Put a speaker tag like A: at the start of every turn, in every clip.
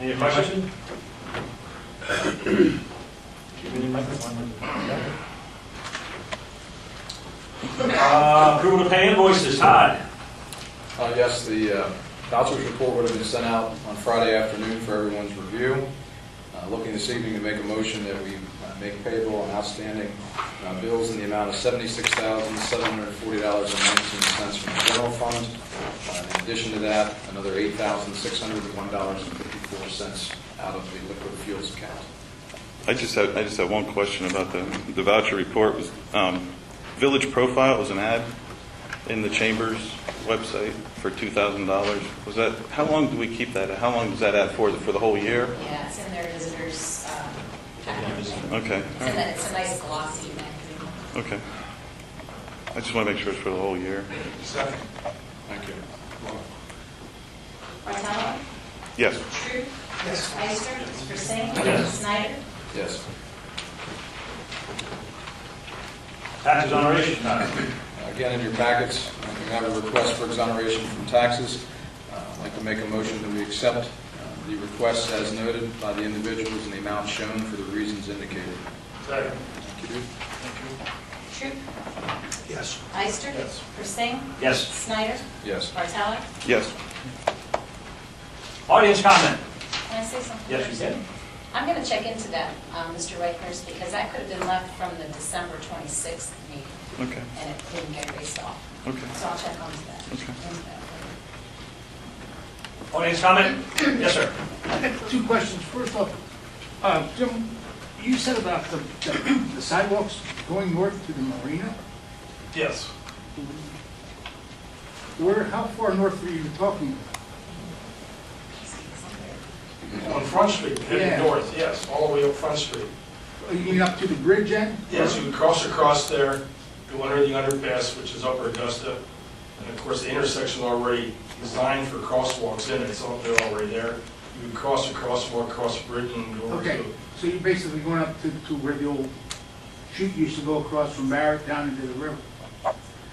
A: Any question? Give me the microphone. Uh, Approval to pay invoices, Todd.
B: Uh, Yes, the uh, vouchers report would have been sent out on Friday afternoon for everyone's review. Uh, Looking this evening to make a motion that we uh, make payable on outstanding uh, bills in the amount of $76,740.19 from the general fund. Uh, In addition to that, another $8,601.54 out of the liquid fuels account.
C: I just have, I just have one question about the, the voucher report was, um, Village Profile was an ad in the Chamber's website for two thousand dollars. Was that, how long do we keep that? How long is that ad for? Is it For the whole year?
D: Yeah, it's in their visitors, um, packet.
C: Okay,
D: It's
C: all
D: in
C: right,
D: the- it's a nice glossy magazine.
C: okay. I just want to make sure it's for the whole year.
B: Second. Thank you.
D: Martello?
C: Yes.
D: True? Yes. Ister? Persing?
A: Yes.
D: Snyder?
B: Yes.
A: Tax exoneration, Todd.
B: Again, in your packets, you have a request for exoneration from taxes. Uh, I'd like to make a motion that we accept uh, the requests as noted by the individuals and the amount shown for the reasons indicated.
A: Second.
B: Thank you.
D: True?
E: Yes.
D: Ister?
A: Yes.
D: Persing?
A: Yes.
D: Snyder?
B: Yes.
D: Martello?
C: Yes.
A: Audience comment.
D: Can I say something?
A: Yes, you
D: first?
A: can.
D: I'm going to check into that, um, Mr. Reichers, because that could have been left from the December 26th meeting,
C: Okay,
D: and it didn't get erased off.
C: okay.
D: So I'll check onto that.
C: Okay.
D: Into that.
A: Audience comment? Yes, sir.
E: I have two questions. First off, uh, Jim, you said about the the sidewalks going north to the marina.
A: Yes.
E: Where, how far north are you talking?
F: On Front Street,
E: Yeah.
F: heading north, yes, all the way up Front Street.
E: You mean up to the bridge end?
F: Yes, you cross across there, go under the underpass, which is Upper Augusta, and of course, the intersection already designed for crosswalks in it, it's all, they're already there. You would cross a crosswalk, cross Britain, and go over
E: Okay,
F: to...
E: so you're basically going up to to where the old chute used to go across from Barrett down into the river.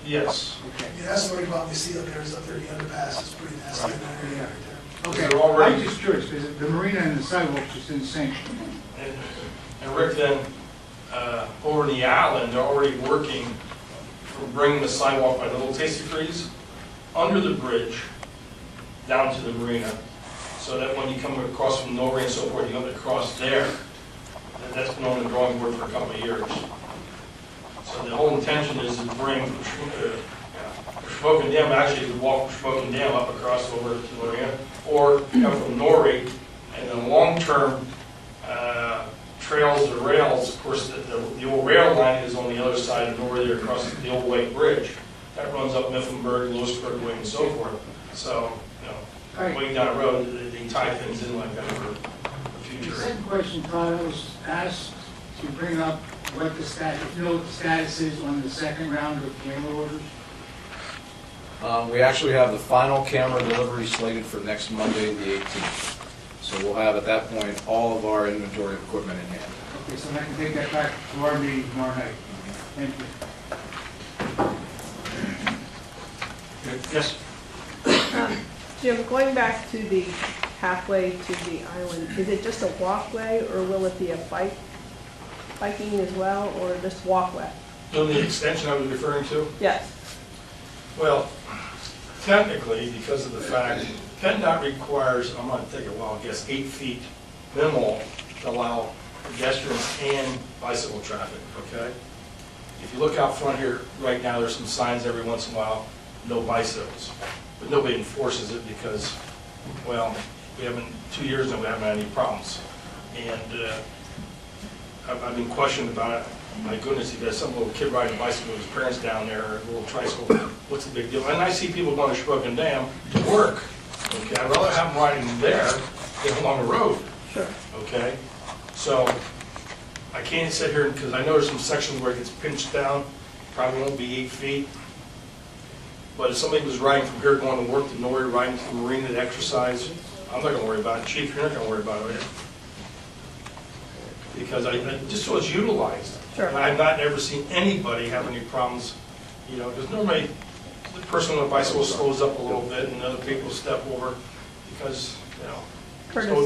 F: Yes,
E: Okay.
G: Yeah, that's what we probably see up there, is up there, the underpass is pretty nasty in that area right there.
E: Okay,
F: They're already-
E: I'm just curious, because the marina and the sidewalks is insane.
F: and, and Rick then, uh, over in the island, they're already working, for bringing the sidewalk by Little Tasty Freeze, under the bridge, down to the marina, so that when you come across from Norway and so forth, you have to cross there. And that's been on the drawing board for a couple of years. So the whole intention is to bring, uh, Smoking Dam, actually, to walk from Smoking Dam up across over to Lorraine, or come from Norway, and then long-term, uh, trails or rails, of course, the, the the old rail line is on the other side of Norway, there across the old Lake Bridge. That runs up Mifflinburg, Lewisburg Way, and so forth. So, you know,
E: All right,
F: going down the road, they- they tie things in like that for the
E: The
F: future.
E: second question, Todd, I was asked to bring up what the status, you know what the status is on the second round of camera orders?
B: Um, We actually have the final camera delivery slated for next Monday, the 18th. So we'll have at that point all of our inventory of equipment in hand.
E: Okay, so I can take that back to our meeting tomorrow night. Thank you.
A: Yes.
H: Jim, going back to the halfway to the island, is it just a walkway or will it be a bike, biking as well, or just walkway?
F: So the extension I was referring to?
H: Yes,
F: Well, technically, because of the fact, PennDOT requires, I'm gonna take a wild guess, eight feet minimal to allow pedestrians and bicycle traffic, okay? If you look out front here, right now, there's some signs every once in a while, no bicycles. But nobody enforces it because, well, we haven't, two years now, we haven't had any problems. And uh, I've I've been questioned about it. My goodness, if there's some little kid riding a bicycle with his parents down there, or a little tricycle, what's the big deal? And I see people going to Shrubland Dam to work, okay? I'd rather have them riding there than along the road,
H: sure.
F: okay? So I can't sit here, because I know there's some sections where it gets pinched down, probably won't be eight feet. But if somebody was riding from here going to work to Norrie, riding to the marina to exercise, I'm not gonna worry about it. Chief, you're not gonna worry about it. Because I, I- just so it's utilized.
H: Sure.
F: And I've not ever seen anybody have any problems, you know, because normally the person on a bicycle slows up a little bit and other people step over because, you know.
H: Curtis.
F: so